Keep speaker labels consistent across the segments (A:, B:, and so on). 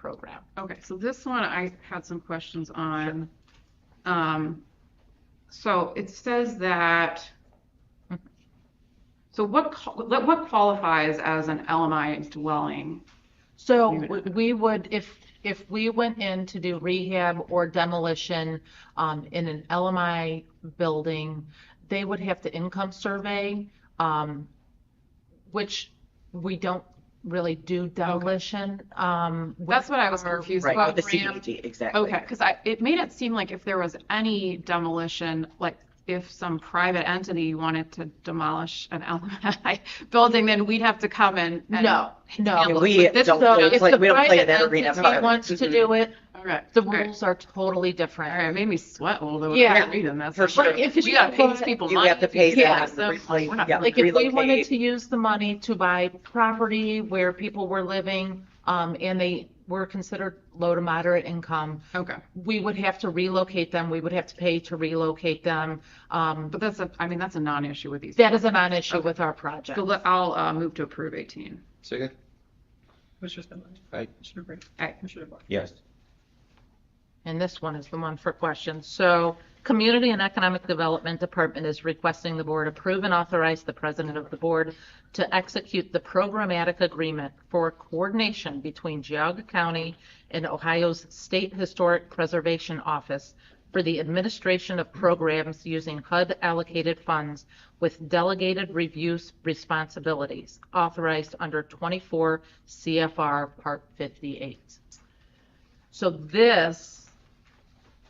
A: program.
B: Okay, so this one I had some questions on. Um, so it says that, so what, qual- what qualifies as an LMI dwelling?
A: So
B: We would-
A: w- we would, if, if we went in to do rehab or demolition um, in an LMI building, they would have to income survey, um, which we don't really do demolition. um, with
B: That's what I was
A: our-
B: confused
C: Right,
B: about,
C: the
B: Graham.
C: CDBG, exactly.
B: Okay, because I, it made it seem like if there was any demolition, like if some private entity wanted to demolish an LMI building, then we'd have to come and. and-
A: No,
C: Yeah,
A: no.
C: We
B: This-
C: don't,
A: So
C: really
A: if
C: play-
A: the
C: we don't play
A: private
C: in that arena. of
A: entity
C: ours.
A: wants to
C: Mhm.
A: do it,
B: All right.
A: the
B: all right,
A: rules are totally
B: All
A: different.
B: right, it made me sweat a little bit.
A: Yeah.
B: Reading that.
C: For sure.
A: If
B: We
A: you
B: gotta pay
A: don't-
B: these people
C: You
B: money.
C: have to pay
B: do
A: them,
B: this, like,
C: replace-
B: we're not
C: yeah.
A: Like if we wanted
C: relocate.
A: to use the money to buy property where people were living, um, and they were considered low to moderate income,
B: Okay,
A: we would have to relocate them, we would have to pay to relocate them. Um,
B: but that's a, I mean, that's a non-issue with these.
A: that is a non-issue with our project.
B: So let- I'll uh, move to approve 18.
D: Second?
E: Commissioner Spindler?
D: Aye.
E: Commissioner Brand?
B: Aye.
E: Commissioner Boyle?
D: Yes.
A: And this one is the one for questions. So Community and Economic Development Department is requesting the board approve and authorize the president of the board to execute the programmatic agreement for coordination between Geauga County and Ohio's State Historic Preservation Office for the administration of programs using HUD allocated funds with delegated reviews responsibilities authorized under 24 CFR Part 58. So this,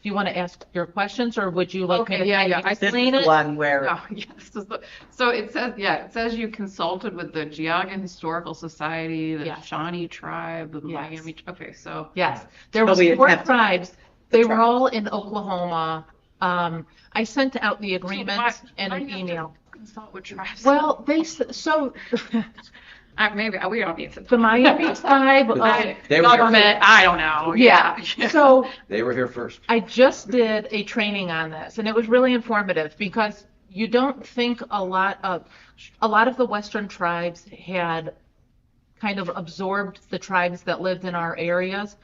A: do you want to ask your questions or would you like? me
B: Okay,
A: to
B: yeah, yeah, I-
C: This
A: Explain
C: is
A: it?
C: one where,
B: Oh, yes. this is the- So it says, yeah, it says you consulted with the Geauga Historical Society, the
A: Yes.
B: Shawnee Tribe, the
A: Yes.
B: Miami, okay, so.
A: Yes, there
C: So
A: was
C: we
A: four
C: attempt-
A: tribes. They were
C: tribes.
A: all in Oklahoma. Um, I sent out the agreement
B: why-
A: and
B: why
A: an
B: do you have to-
A: email.
B: Consult with tribes.
A: Well, they, s- so
B: I- Maybe, we don't need to.
A: the Miami tribe, uh,
B: I-
D: They were-
B: Government, I don't know.
A: yeah. So
D: They were here first.
A: I just did a training on this and it was really informative because you don't think a lot of, a lot of the Western tribes had kind of absorbed the tribes that lived in our areas.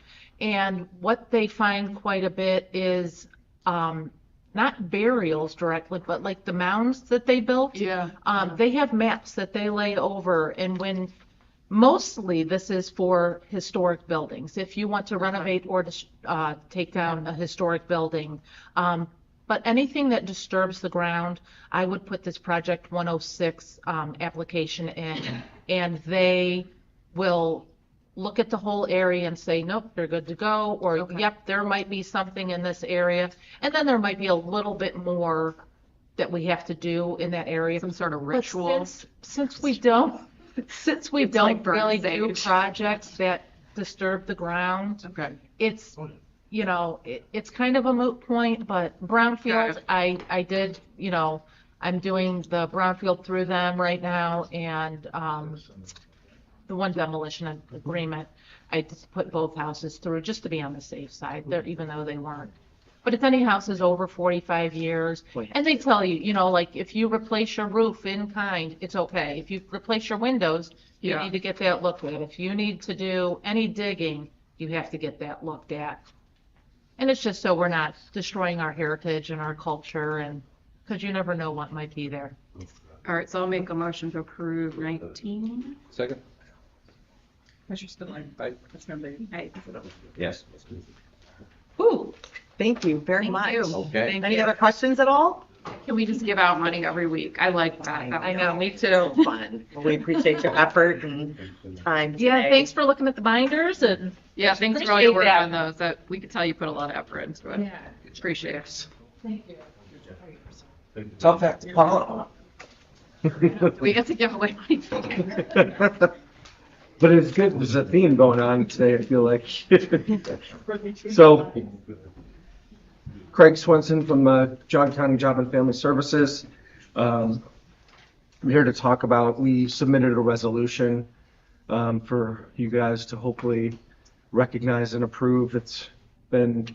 A: And what they find quite a bit is um, not burials directly, but like the mounds that they built.
B: Yeah.
A: Um, they have maps that they lay over and when, mostly this is for historic buildings. If you want to renovate or, dis- uh, take down a historic building. Um, but anything that disturbs the ground, I would put this project one oh six, um, application in. And they will look at the whole area and say, nope, you're good to go, or
B: Okay.
A: yep, there might be something in this area. And then there might be a little bit more that we have to do in that area.
B: Some sort of
A: But
B: ritual.
A: since- Since we don't, since we
B: It's like
A: don't really
B: Burns
A: do
B: Age.
A: projects that disturb the ground,
B: Okay.
A: it's, you know, it, it's kind of a moot point, but brownfield, I, I did, you know, I'm doing the brownfield through them right now and, um, the one demolition agreement, I just put both houses through just to be on the safe side, there, even though they weren't. But if any house is over forty-five years,
C: Boy.
A: and they tell you, you know, like, if you replace your roof in kind, it's okay. If you replace your windows, you
B: Yeah.
A: need to get that looked at. If you need to do any digging, you have to get that looked at. And it's just so we're not destroying our heritage and our culture and, because you never know what might be there.
B: All right, so I'll make a motion to approve 19.
D: Second?
E: Commissioner Spindler?
D: Aye.
E: Commissioner Brand?
B: Aye.
D: Yes.
C: Ooh, thank you very much.
D: Okay.
B: Thank
C: Any
B: you.
C: other questions at all?
B: Can we just give out money every week? I like that. That
A: I
B: was-
A: know, me too.
C: Fun. Well, we appreciate your effort and time today.
A: Yeah, thanks for looking at the binders and.
B: Yeah, thanks for all your work on those. That, we could tell you put a lot of effort into it.
A: Yeah,
B: Appreciate it.
A: thank you.
D: Tough act to follow.
B: We get to give away money.
F: But it's good, there's a theme going on today, I feel like. So Craig Swenson from uh, John County Job and Family Services. Um, I'm here to talk about, we submitted a resolution um, for you guys to hopefully recognize and approve. It's been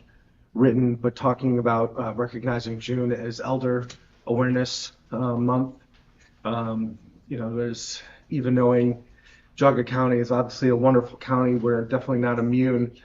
F: written, but talking about uh, recognizing June as Elder Awareness uh, Month. Um, You know, there's, even knowing Jogga County is obviously a wonderful county, we're definitely not immune